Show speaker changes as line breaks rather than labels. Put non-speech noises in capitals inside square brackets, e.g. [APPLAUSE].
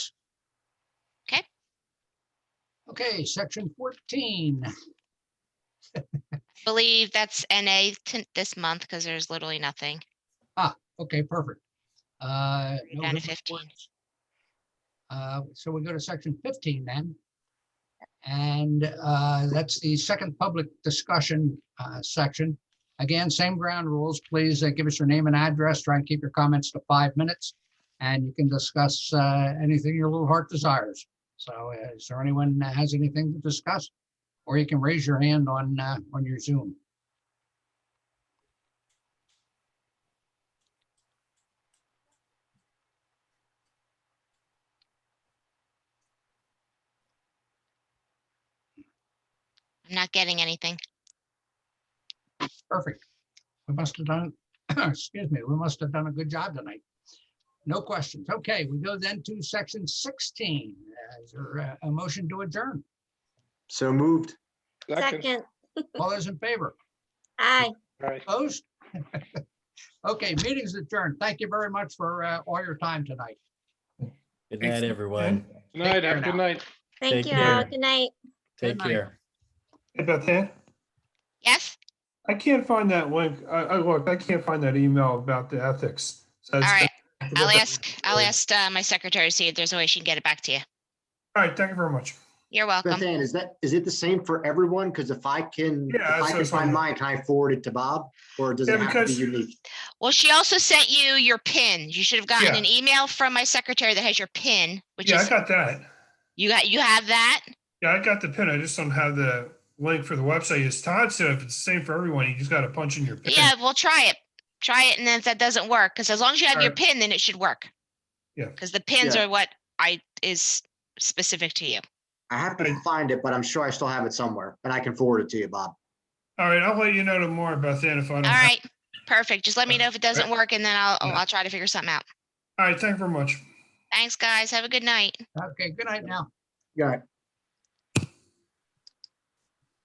Okay, section fourteen.
Believe that's NA to- this month because there's literally nothing.
Ah, Okay, perfect. Uh, no
Down to
good
15.
reports. Uh, So we go to section 15 then. And uh, that's the second public discussion uh, section. Again, same ground rules. Please uh, give us your name and address. Try and keep your comments to five minutes. And you can discuss uh, anything your little heart desires. So uh, is there anyone that has anything to discuss? Or you can raise your hand on, uh, on your Zoom.
I'm not getting anything.
Perfect. We must have done, [COUGHS] excuse me, we must have done a good job tonight. No questions. Okay, we go then to section sixteen. Uh, Is there a- a motion to adjourn?
So moved.
Second,
All those in favor?
aye.
Right.
Opposed? [LAUGHS] Okay, meeting's adjourned. Thank you very much for uh, all your time tonight.
Good night, everyone.
Good night,
care
have a
now.
good night.
Thank
Take
you all.
care.
Good night.
Take care.
Hey Beth Ann,
Yes?
I can't find that link. I, I looked, I can't find that email about the ethics. So
All
it's-
right. I'll ask, I'll
Sure.
ask uh, my secretary, to see if there's a way she can get it back to you.
All right, thank you very much.
You're welcome.
Bethann, is that, is it the same for everyone? Because if I can, if
Yeah,
I
so
can
it's
find
on-
mine, can I forward it to Bob? Or does
Yeah,
it have to be
because-
unique?
Well, she also sent you your pin. You should have gotten
Yeah.
an email from my secretary that has your pin, which
Yeah, I
is,
got that.
you got, you have that?
Yeah, I got the pin. I just don't have the link for the website. As Todd said, if it's the same for everyone, you just gotta punch in your pin.
Yeah, we'll try it. Try it and then if that doesn't work, because as long as you have your
Alright.
pin, then it should work.
Yeah. Uh-huh.
Because the pins
Yeah.
are what I, is specific to you.
I have to find it, but I'm sure I still have it somewhere and I can forward it to you, Bob.
All right, I'll let you know tomorrow, Beth Ann, if I don't.
All
have-
right, perfect. Just let
Uh-huh.
me know if it doesn't work and then I'll,
Yeah.
I'll try to figure something out.
All right, thank you very much.
Thanks, guys. Have a good night.
Okay, good night now.
Yeah,